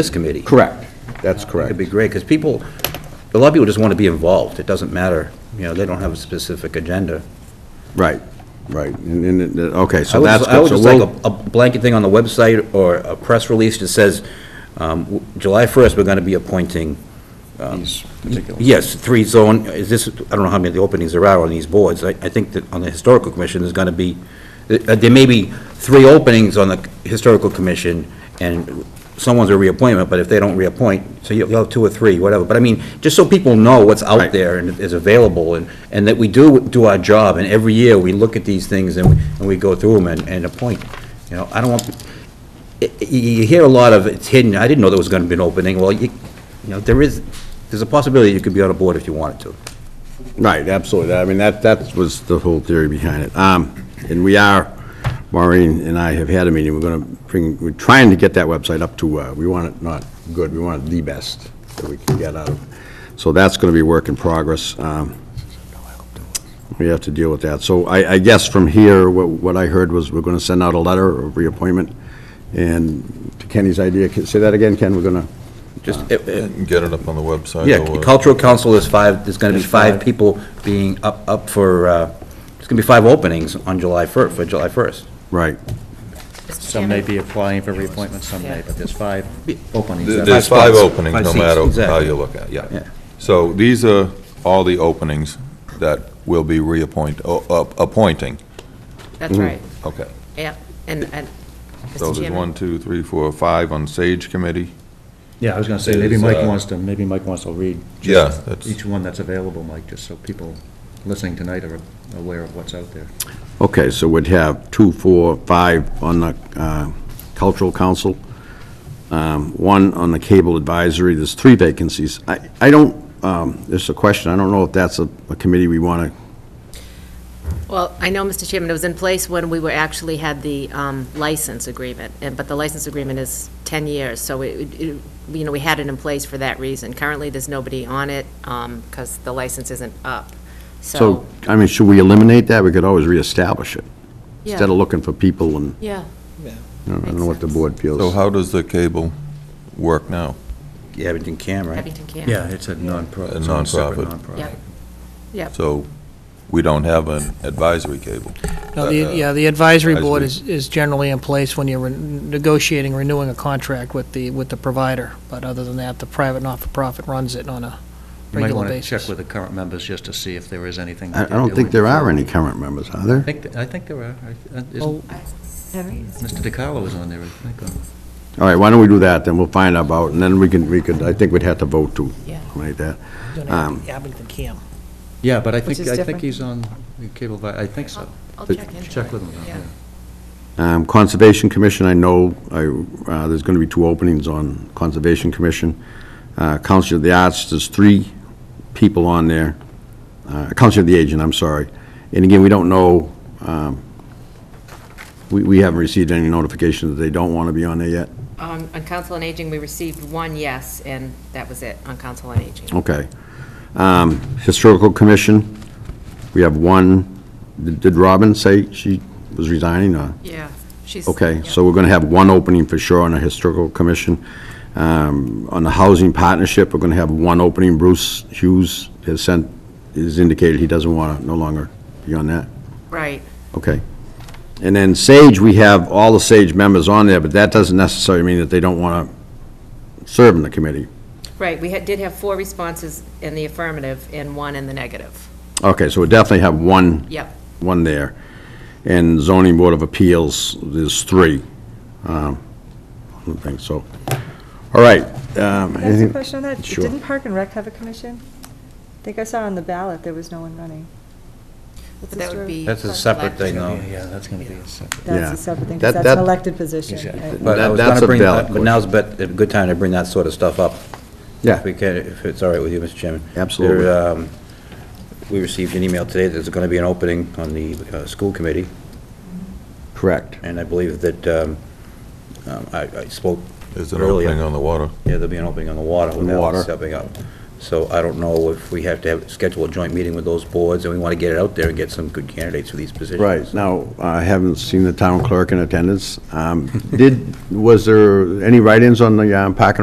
this committee. Correct. That's correct. It'd be great, because people, a lot of people just want to be involved. It doesn't matter, you know, they don't have a specific agenda. Right, right. And, and, it- okay, I so would that's just- I good. would So just like we'll, a a blanket thing on the website or a press release that says, um, w- July 1st, we're going to be appointing, These particular. yes, three zone, is this, I don't know how many of the openings there are on these boards. I I think that on the Historical Commission, there's going to be, uh, there may be three openings on the Historical Commission, and someone's a reappointment, but if they don't reappoint, so you'll you'll have two or three, whatever. But I mean, just so people know what's out Right. there and is available, and and that we do do our job, and every year, we look at these things and we and we go through them and and appoint, you know, I don't want, y- y- you hear a lot of, it's hidden, I didn't know there was going to be an opening, well, you, you know, there is, there's a possibility you could be on a board if you wanted to. right, absolutely. I mean, that, that was the whole theory behind it. Um, and we are, Maureen and I have had a meeting, we're gonna bring, we're trying to get that website up to, uh, we want it not good, we want it the best that we can get out of. it. So that's gonna be a work in progress. Um, we have to deal with that. So I, I guess from here, what, what I heard was we're gonna send out a letter of reappointment. And to Kenny's idea, can- say that again, Ken, we're gonna, Just, it- it- And get it up on the website. yeah, or- cultural council is five, there's going to be five people being up, up for, uh, there's going to be five openings on July 1st, for July 1st. right. Some may be applying for reappointment, some may, but there's five openings. There- that- There's five openings, Five no seats, matter how exactly. you look at it, Yeah. yeah. So these are all the openings that will be reappoint, o- up- appointing, That's right, okay. yeah, and, and, Mm-hmm. So Mr. there's Chairman, one, two, three, four, five on Sage Committee. Yeah, I was gonna say, maybe Is, Mike uh, wants to, maybe Mike wants to read Yeah, just that's- each one that's available, Mike, just so people listening tonight are aware of what's out there. Okay, so we'd have two, four, five on the uh, Cultural Council, um, one on the Cable Advisory, there's three vacancies. I I don't, um, there's a question, I don't know if that's a a committee we want to, well, I know, Mr. Chairman, it was in place when we were, actually had the um, license agreement, and, but the license agreement is 10 years, so it, it- you know, we had it in place for that reason. Currently, there's nobody on it, because the license isn't up, so. so, I mean, should we eliminate that? We could always reestablish it, yeah, instead of looking for people, and Yeah, I don't know what the Makes sense. board feels. So how does the cable work now? You have it in cam, right? Abington can. Yeah, it's a nonprofit. A it's a separate nonprofit. Yeah. So we don't have an advisory cable. Uh, No, the, yeah, the advisory board is, advisory. is generally in place when you're ren- negotiating, renewing a contract with the, with the provider. But other than that, the private not-for-profit runs it on a You might regular want to check basis. with the current members just to see if there is anything. I I that they're don't think doing. there are any current members, are I there? think, I think there are. I- uh, Well, Isn't, Mr. DiCarlo is on there, I think. on- All right, why don't we do that, then we'll find out about, and then we can, we could, I think we'd have to vote to Yeah. eliminate that. doing um, it at Abington Cam. Yeah, but I think, is I think different. he's on the cable, vi- I think so. I'll check in. Check with him. about Yeah. that. Um, Conservation Commission, I know, I, uh, there's going to be two openings on Conservation Commission. Uh, Council of the Arts, there's three people on there. Uh, Council of the Agent, I'm sorry. And again, we don't know, um, we, we haven't received any notification that they don't want to be on there yet. Um, On Council on Aging, we received one yes, and that was it on Council on Aging. Okay. Um, Historical Commission, we have one, did Robin say she was resigning, or? Yeah, she's. Okay, yeah. so we're going to have one opening for sure on the Historical Commission. Um, On the Housing Partnership, we're going to have one opening. Bruce Hughes has sent, has indicated he doesn't want to, no longer be on that. Right. Okay. And then Sage, we have all the Sage members on there, but that doesn't necessarily mean that they don't want to serve in the committee. Right, we had- did have four responses in the affirmative and one in the negative. Okay, so we definitely have one Yep, one there. And zoning board of appeals, there's three. Um, I don't think so. All right. um, Can I ask a anything- question on that? Sure. Didn't Park and Rec have a commission? I think I saw on the ballot there was no one running. but that would be. That's a separate thing, though. Yeah, that's going to be a separate. Yeah. That's a separate thing, That- 'cause that's that- an elected position. Exactly. right? But I That- was gonna that's a bring valid that- But now's bet- a good time to bring that sort of stuff up. Yeah. If we can, if it's all right with you, Mr. Chairman. Absolutely. There, um, We received an email today that there's going to be an opening on the uh, school committee. Correct. And I believe that, um, um, I I spoke There's an earlier. opening on the water. Yeah, there'll be an opening on the water On the water. without stepping up. So I don't know if we have to have, schedule a joint meeting with those boards, and we want to get it out there and get some good candidates for these positions. Right. Now, I haven't seen the town clerk in attendance. Um, Did, was there any write-ins on the um, Park and